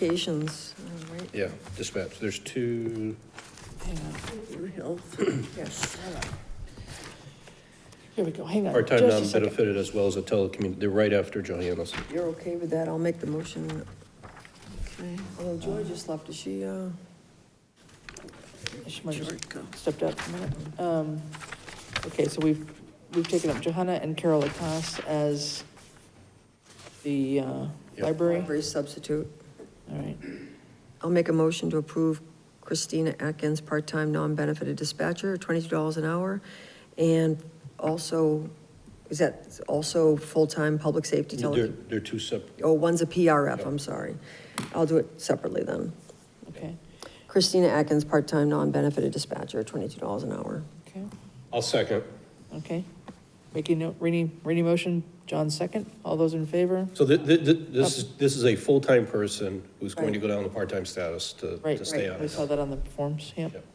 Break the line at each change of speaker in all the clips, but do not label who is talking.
Communications, all right.
Yeah, dispatch, there's two,
Hang on,
Blue Hill, yes.
here we go, hang on.
part-time
just a second.
non-benefited as well as a telecommu, they're right after Johannes.
You're okay with that? I'll make the motion. Okay. Although Joy just left, is she, uh?
She might have stepped out for a minute. Um, Okay, so we've, we've taken up Johanna and Carol Lacoste as the uh,
Yep.
library.
Library substitute.
All right,
I'll make a motion to approve Christina Atkins, part-time, non-benefited dispatcher, twenty-two dollars an hour. And also, is that also full-time public safety
They're,
tele?
they're two separate,
Oh, one's a PRF, I'm sorry. I'll do it separately then.
okay,
Christina Atkins, part-time, non-benefited dispatcher, twenty-two dollars an hour.
okay,
I'll second.
okay. Making, no- Rainey, Rainey motion, John second, all those in favor?
So thi- thi- thi- this is, this is a full-time person who's going to go down to part-time status to,
Right,
to stay on
we
it.
saw that on the forms, yep.
Yep.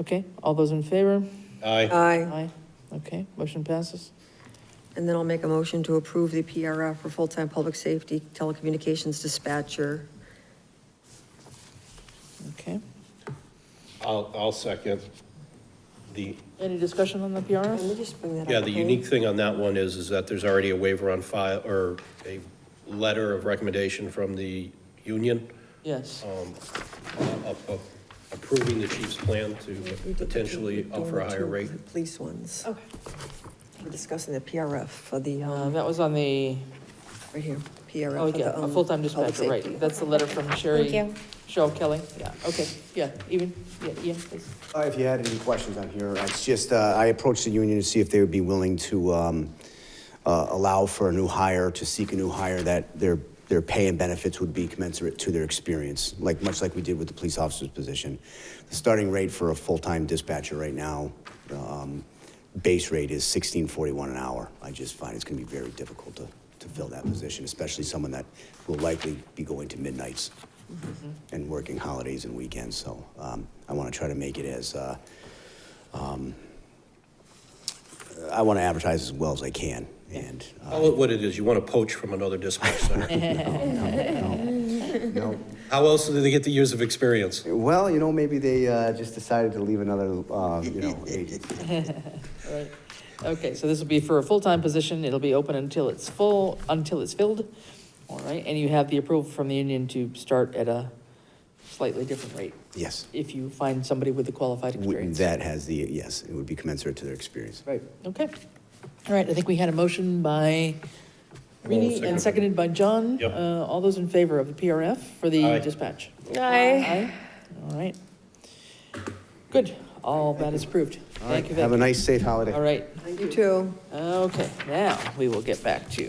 Okay, all those in favor?
Aye,
Aye.
Aye, okay, motion passes.
And then I'll make a motion to approve the PRF for full-time public safety telecommunications dispatcher.
Okay,
I'll, I'll second. The,
any discussion on the
Let me
PRF?
just bring that up.
yeah, the
okay?
unique thing on that one is, is that there's already a waiver on file, or a letter of recommendation from the union Oh,
Yes,
uh, of- of approving the chief's plan to potentially offer a higher rate.
Police ones.
okay.
We're discussing the PRF for the,
Uh,
um,
that was on the,
right here, PRF.
oh,
for
yeah,
the,
a
um,
full-time
public
dispatcher, right.
safety.
That's the letter from Sherry.
Thank you.
Cheryl Kelly, yeah, okay, yeah, even, yeah, yeah, please.
Uh, If you had any questions on here, it's just, uh, I approached the union to see if they would be willing to um, uh, allow for a new hire, to seek a new hire, that their, their pay and benefits would be commensurate to their experience, like, much like we did with the police officer's position. The starting rate for a full-time dispatcher right now, um, base rate is sixteen forty-one an hour. I just find it's gonna be very difficult to, to fill that position, especially someone that will likely be going to midnights and working holidays and weekends, so um, I want to try to make it as, uh, um, I want to advertise as well as I can, and, uh,
Call it what it is, you want to poach from another dispatch center.
no.
How else do they get the years of experience?
well, you know, maybe they uh, just decided to leave another, uh, you know, agency.
All right. Okay, so this will be for a full-time position, it'll be open until it's full, until it's filled. All right, and you have the approval from the union to start at a slightly different rate
Yes,
if you find somebody with the qualified
W-
experience.
that has the, yes, it would be commensurate to their experience.
Right. Okay. All right, I think we had a motion by Reedy and
seconded.
seconded by John.
Yep.
Uh, All those in favor of the PRF for the
Aye.
dispatch?
Aye.
Aye. All right. Good, all that is approved.
All right,
Thank you,
have a
Vic.
nice, safe holiday.
All right,
You too.
okay, now we will get back to,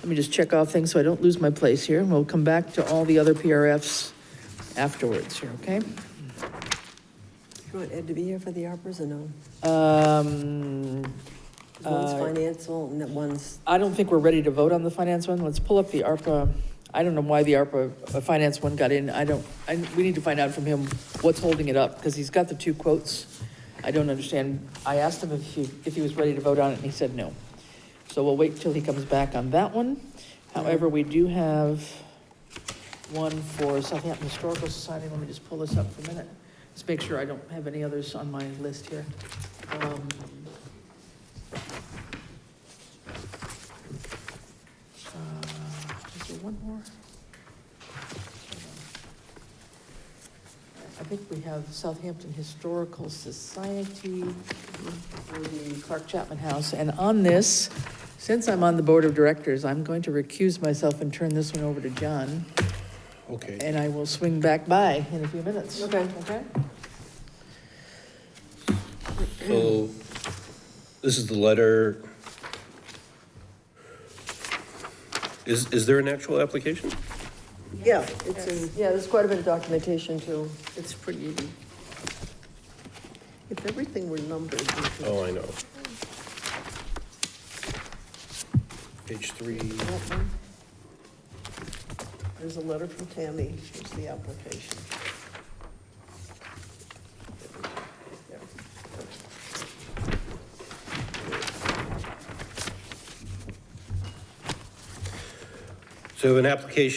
let me just check off things so I don't lose my place here, and we'll come back to all the other PRFs afterwards here, okay?
You want Ed to be here for the ARPA's or no?
Um,
'Cause One's
Uh,
financial and that one's,
I don't think we're ready to vote on the finance one. Let's pull up the ARPA. I don't know why the ARPA uh, finance one got in. I don't, I, we need to find out from him what's holding it up, because he's got the two quotes. I don't understand. I asked him if he, if he was ready to vote on it, and he said no. So we'll wait till he comes back on that one. However, we do have one for Southampton Historical Society. Let me just pull this up for a minute. Just make sure I don't have any others on my list here. Um, Uh, Is there one more? I think we have Southampton Historical Society for the Clark Chapman House. And on this, since I'm on the Board of Directors, I'm going to recuse myself and turn this one over to John,
Okay,
and I will swing back by in a few minutes.
Okay.
Okay?
so this is the letter. Is, is there an actual application?
yeah, it's in, yeah, there's quite a bit of documentation too.
It's pretty. If everything were numbered, we could-
Oh, I know. Page three,
there's a letter from Tammy, here's the application.
So So an application